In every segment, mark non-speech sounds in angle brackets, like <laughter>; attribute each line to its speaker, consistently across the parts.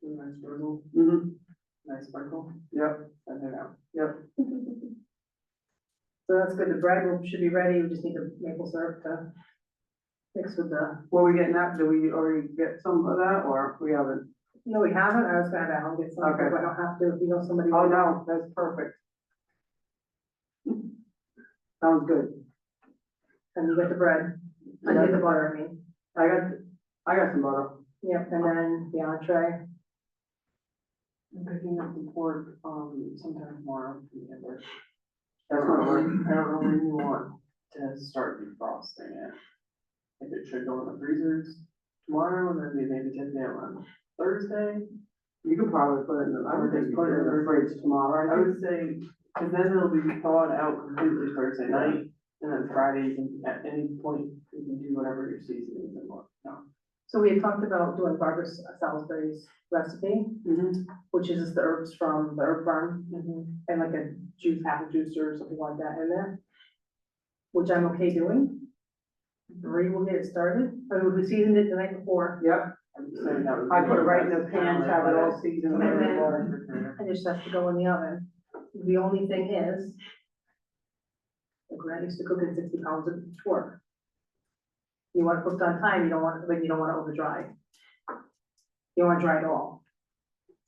Speaker 1: Nice swivel,
Speaker 2: Mm-hmm,
Speaker 1: nice sparkle,
Speaker 2: yep,
Speaker 1: send it out.
Speaker 2: yep.
Speaker 3: <laughs> So that's good, the bread will, should be ready, we just need the maple syrup to mix with the,
Speaker 2: Were we getting that? Did we already get some of that or we haven't?
Speaker 3: no, we haven't, I was gonna have Alan get some,
Speaker 2: Okay.
Speaker 3: but I don't have to, if you know somebody.
Speaker 2: Oh, no, that's perfect. Sounds good.
Speaker 3: And you get the bread, I get the butter, I mean,
Speaker 2: I got, I got some butter.
Speaker 3: yep, and then the entree,
Speaker 1: I'm picking up the pork, um, sometime tomorrow. from the other.
Speaker 2: That's not hard.
Speaker 1: I don't know when you want to start defrosting it. If it should go in the freezers tomorrow, and then we maybe take it out on Thursday.
Speaker 2: You could probably put it in, the- I would just put it in the fridge tomorrow. I
Speaker 1: I
Speaker 2: think
Speaker 1: would say, cause then it'll be thawed out completely Thursday night, and then Friday, you can, at any point, you can do whatever your seasoning and what, no.
Speaker 3: so we had talked about doing Barbara Salisbury's recipe,
Speaker 2: Mhm.
Speaker 3: which is the herbs from the herb farm, and like a juice, apple juice or something like that in there, which I'm okay doing. Marie will get it started, or we seasoned it the night before,
Speaker 2: Yep,
Speaker 1: I would say that would.
Speaker 2: I
Speaker 1: be
Speaker 2: put it right in the
Speaker 1: best
Speaker 2: pan,
Speaker 1: palate,
Speaker 2: have it all
Speaker 1: but-
Speaker 2: seasoned with
Speaker 3: And then-
Speaker 2: the water.
Speaker 1: Refrigerator.
Speaker 3: and it just has to go in the oven. The only thing is, like when I used to cook in sixty pounds of pork, you want it cooked on time, you don't want, it- like, you don't want it over dry. You don't want it dry at all.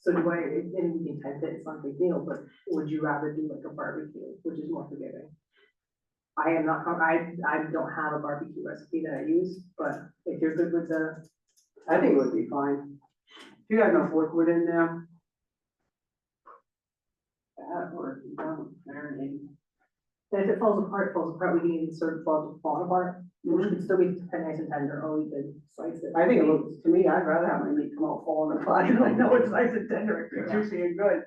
Speaker 3: So do I, and you can type it, it's not a big deal, but would you rather do like a barbecue, which is more forgiving? I am not, I, I don't have a barbecue recipe that I use, but if you're good with the,
Speaker 2: I think it would be fine. If you got enough liquid in there,
Speaker 1: That or, if you don't, marinade.
Speaker 3: then if it falls apart, it falls apart, we can even serve fall, fall apart. Which
Speaker 2: Mhm.
Speaker 3: would still be nice and tender, or Oh, we could slice it.
Speaker 2: I think it
Speaker 3: <laughs>
Speaker 2: looks, to me, I'd rather have my meat come out falling apart. <laughs> I know it's nice and tender, it's
Speaker 3: Yeah.
Speaker 2: juicy and good.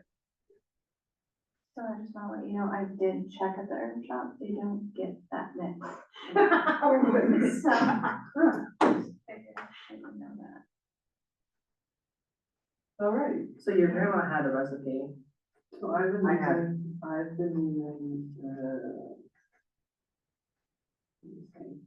Speaker 4: So I just wanna let you know, I did check at the herb shop, they don't get that mix. So. I did- I didn't know that.
Speaker 1: All right,
Speaker 3: So your grandma had a recipe.
Speaker 1: so I've been
Speaker 3: I have-
Speaker 1: using, I've been using, uh. let me think.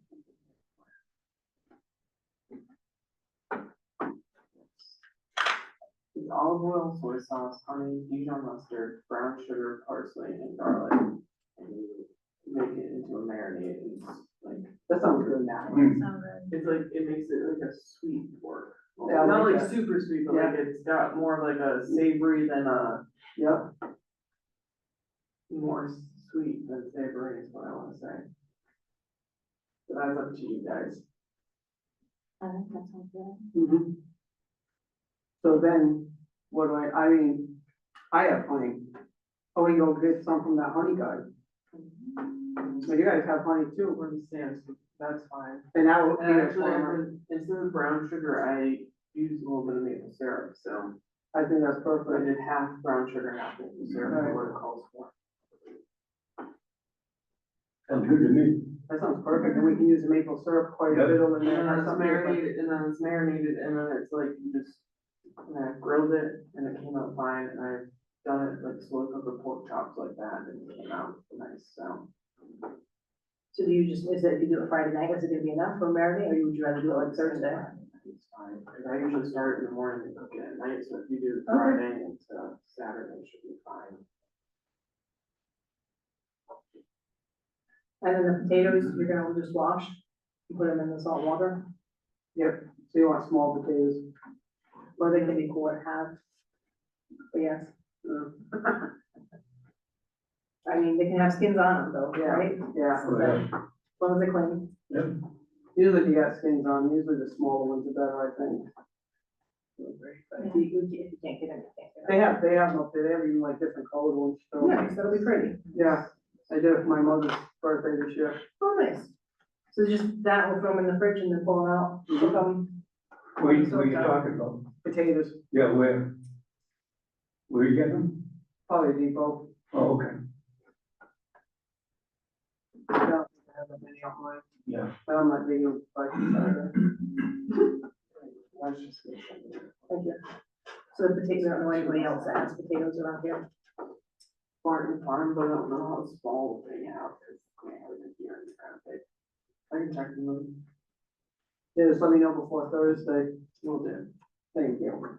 Speaker 1: It's olive oil, soy sauce, honey, Dijon mustard, brown sugar, parsley, and garlic. And you make it into a marinade, and it's like,
Speaker 2: That sounds good.
Speaker 1: that
Speaker 5: Mm.
Speaker 4: So uh, good.
Speaker 1: It's like, it makes it like a sweet pork.
Speaker 2: Yeah, I
Speaker 1: Not
Speaker 2: like
Speaker 1: like
Speaker 2: that.
Speaker 1: super sweet, but like it's got more of like a savory than a,
Speaker 2: Yep,
Speaker 1: more sweet than savory is what I wanna say. But that's up to you guys.
Speaker 4: I think that sounds good.
Speaker 2: hmm So then, what do I, I mean, I have honey. Oh, we go get some from that honey guy. So you guys have honey too,
Speaker 1: Everyone stands, that's fine.
Speaker 2: and that would be
Speaker 1: And
Speaker 2: a
Speaker 1: actually, I've
Speaker 2: farmer.
Speaker 1: been- instead of brown sugar, I use a little bit of maple syrup, so
Speaker 2: I think that's
Speaker 1: I
Speaker 2: perfect.
Speaker 1: did half brown sugar, half maple syrup,
Speaker 2: Right.
Speaker 1: for what it calls for.
Speaker 5: Sounds good to me.
Speaker 2: That sounds perfect, and we can use the maple syrup quite a
Speaker 5: Yep.
Speaker 2: bit over
Speaker 1: And
Speaker 2: there.
Speaker 1: then
Speaker 2: or
Speaker 1: it's
Speaker 2: something, but-
Speaker 1: marinated, and then it's marinated, and then it's like, you just, and I grilled it, and it came out fine, and I've done it like slow cooked with pork chops like that, and it came out nice, so.
Speaker 3: So do you just, is it, you do it Friday night, is it gonna be enough for marinade, or would you rather do it like Thursday?
Speaker 1: It's fine, 'cause I usually start in the morning and cook it at night, so if you do it
Speaker 3: Okay.
Speaker 1: Friday and uh, Saturday, it should be fine.
Speaker 3: And then the potatoes, you're gonna just wash, you put them in the salt water,
Speaker 2: Yep, so you want small potatoes.
Speaker 3: or they can be quarter half. But yes,
Speaker 2: Mm,
Speaker 3: <laughs> I mean, they can have skins on them though,
Speaker 2: Yeah.
Speaker 3: right?
Speaker 2: Yeah,
Speaker 3: So that- As long as they're clean.
Speaker 2: usually if you got skins on, usually the smaller ones are better, I think.
Speaker 3: But if you, if you can't get them, you can't get
Speaker 2: They
Speaker 3: them.
Speaker 2: have, they have, them, they have even like different colored ones, so.
Speaker 3: Nice, that'll be pretty.
Speaker 2: Yeah, I did it for my mother's birthday this year.
Speaker 3: Oh, nice. So just that, we'll throw them in the fridge and then pull them out, cook 'em.
Speaker 5: What are you, what are you talking about?
Speaker 2: Potatoes,
Speaker 5: Yeah, where? Where you get them?
Speaker 2: probably Depot.
Speaker 5: Oh, okay,
Speaker 2: I don't think I have that many online,
Speaker 5: yeah.
Speaker 2: but I'm not big on spicy cider.
Speaker 1: I was just gonna say that.
Speaker 3: Thank you. So the potatoes, I don't know anybody else that has potatoes around here.
Speaker 1: Barton Farm, but I don't know how small they have, because they have it here and it's kind of big. I can check them,
Speaker 2: Yeah, just let me know before Thursday.
Speaker 1: we'll do.
Speaker 2: Thank you.